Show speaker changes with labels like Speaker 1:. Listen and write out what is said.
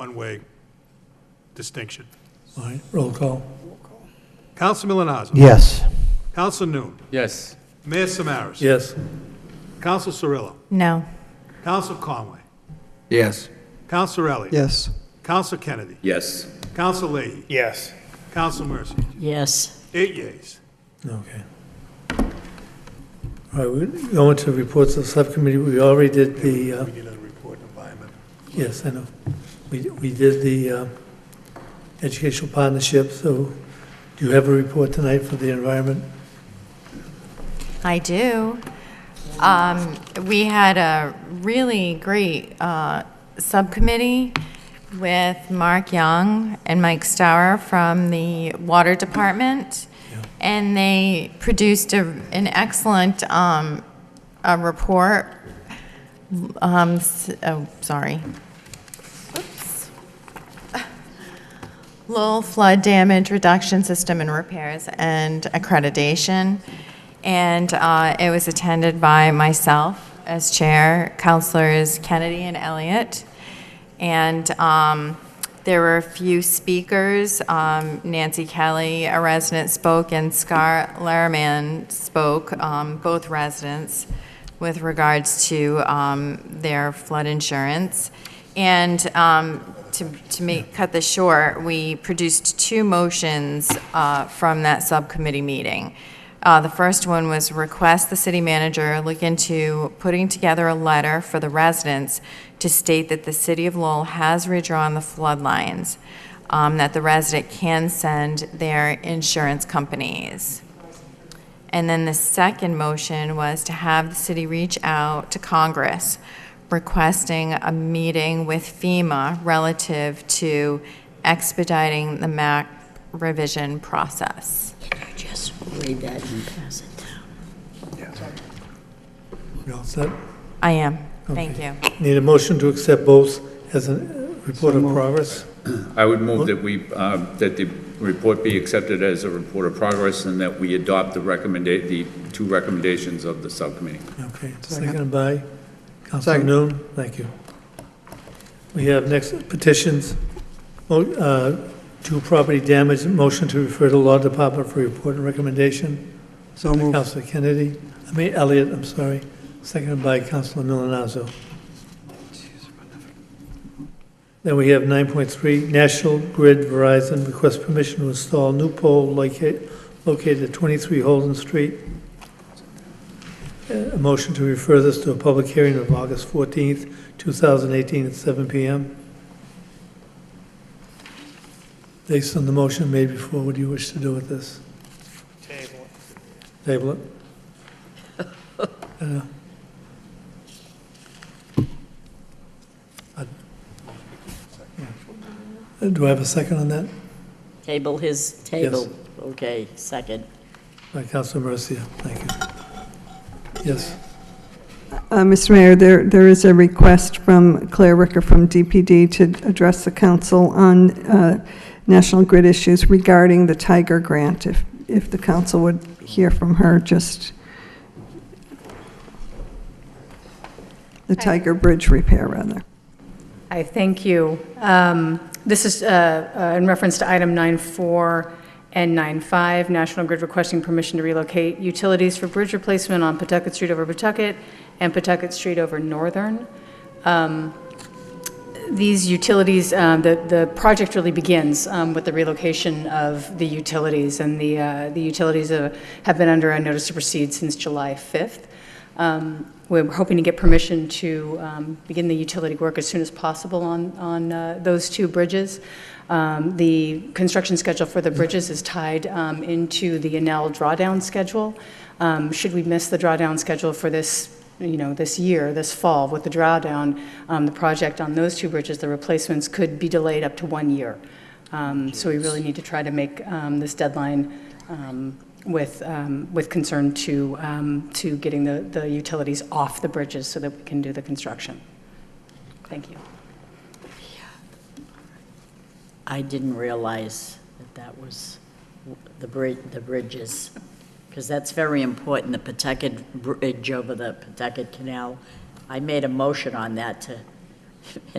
Speaker 1: one-way distinction.
Speaker 2: All right, roll call.
Speaker 1: Counsel Milonazo.
Speaker 3: Yes.
Speaker 1: Counsel Noon.
Speaker 4: Yes.
Speaker 1: Mayor Samaras.
Speaker 2: Yes.
Speaker 1: Counsel Cirillo.
Speaker 5: No.
Speaker 1: Counsel Conway.
Speaker 4: Yes.
Speaker 1: Counsel Elliott.
Speaker 3: Yes.
Speaker 1: Counsel Kennedy.
Speaker 4: Yes.
Speaker 1: Counsel Leahy.
Speaker 6: Yes.
Speaker 1: Counsel Mercy.
Speaker 5: Yes.
Speaker 1: Eight yeas.
Speaker 2: Okay. All right, we're going to reports of subcommittee. We already did the, uh,
Speaker 1: We need a report on environment.
Speaker 2: yes, I know. We, we did the uh, educational partnership, so do you have a report tonight for the environment?
Speaker 5: I do. Um, We had a really great uh, subcommittee with Mark Young and Mike Stower from the Water Department, and they produced a- an excellent um, a report. Um, s- Oh, sorry. Lowell Flood Damage Reduction System and Repairs and Accreditation. And uh, it was attended by myself as chair, counselors Kennedy and Elliott. And um, there were a few speakers. Um, Nancy Kelly, a resident, spoke, and Scar Laraman spoke, um, both residents, with regards to um, their flood insurance. And um, to, to make, cut this short, we produced two motions uh, from that subcommittee meeting. Uh, The first one was request the city manager look into putting together a letter for the residents to state that the city of Lowell has redrawn the flood lines, um, that the resident can send their insurance companies. And then the second motion was to have the city reach out to Congress requesting a meeting with FEMA relative to expediting the MAC revision process.
Speaker 7: Can I just read that and pass it down?
Speaker 2: We all set?
Speaker 5: I am. Thank you.
Speaker 2: Need a motion to accept both as a uh, report of progress?
Speaker 4: I would move that we, uh, that the report be accepted as a report of progress and that we adopt the recommenda, the two recommendations of the subcommittee.
Speaker 2: Okay, seconded by Councilor
Speaker 3: Second.
Speaker 2: Noon. Thank you. We have next petitions, Mo- uh, to property damage, motion to refer to Law Department for report and recommendation.
Speaker 3: So moved.
Speaker 2: Councilor Kennedy, I mean Elliott, I'm sorry, seconded by Councilor Milonazo. Then we have 9.3, National Grid Verizon requests permission to install new pole loca- located at 23 Holden Street. A motion to refer this to a public hearing of August 14th, 2018 at 7 PM. Based on the motion made before, what do you wish to do with this?
Speaker 6: Table.
Speaker 2: Table it? Uh, I- yeah. Uh, Do I have a second on that?
Speaker 7: Table his table. Okay, second.
Speaker 2: By Councilor Mercia, thank you. Yes,
Speaker 8: Uh, Mr. Mayor, there, there is a request from Claire Ricker from DPD to address the council on uh, National Grid issues regarding the Tiger Grant, if, if the council would hear from her, just the Tiger Bridge repair, rather.
Speaker 9: Hi, thank you. Um, This is uh, uh, in reference to item 9.4 and 9.5, National Grid requesting permission to relocate utilities for bridge replacement on Pawtucket Street over Pawtucket and Pawtucket Street over Northern. Um, These utilities, um, the the project really begins um, with the relocation of the utilities, and the uh, the utilities uh, have been under a notice to proceed since July 5th. Um, We're hoping to get permission to um, begin the utility work as soon as possible on, on uh, those two bridges. Um, The construction schedule for the bridges is tied um, into the Enel drawdown schedule. Um, Should we miss the drawdown schedule for this, you know, this year, this fall, with the drawdown, um, the project on those two bridges, the replacements could be delayed up to one year. Um, So we really need to try to make um, this deadline um, with, um, with concern to, um, to getting the, the utilities off the bridges so that we can do the construction. Thank you.
Speaker 7: I didn't realize that that was the bridge, the bridges, because that's very important, the Pawtucket Bridge over the Pawtucket Canal. I made a motion on that to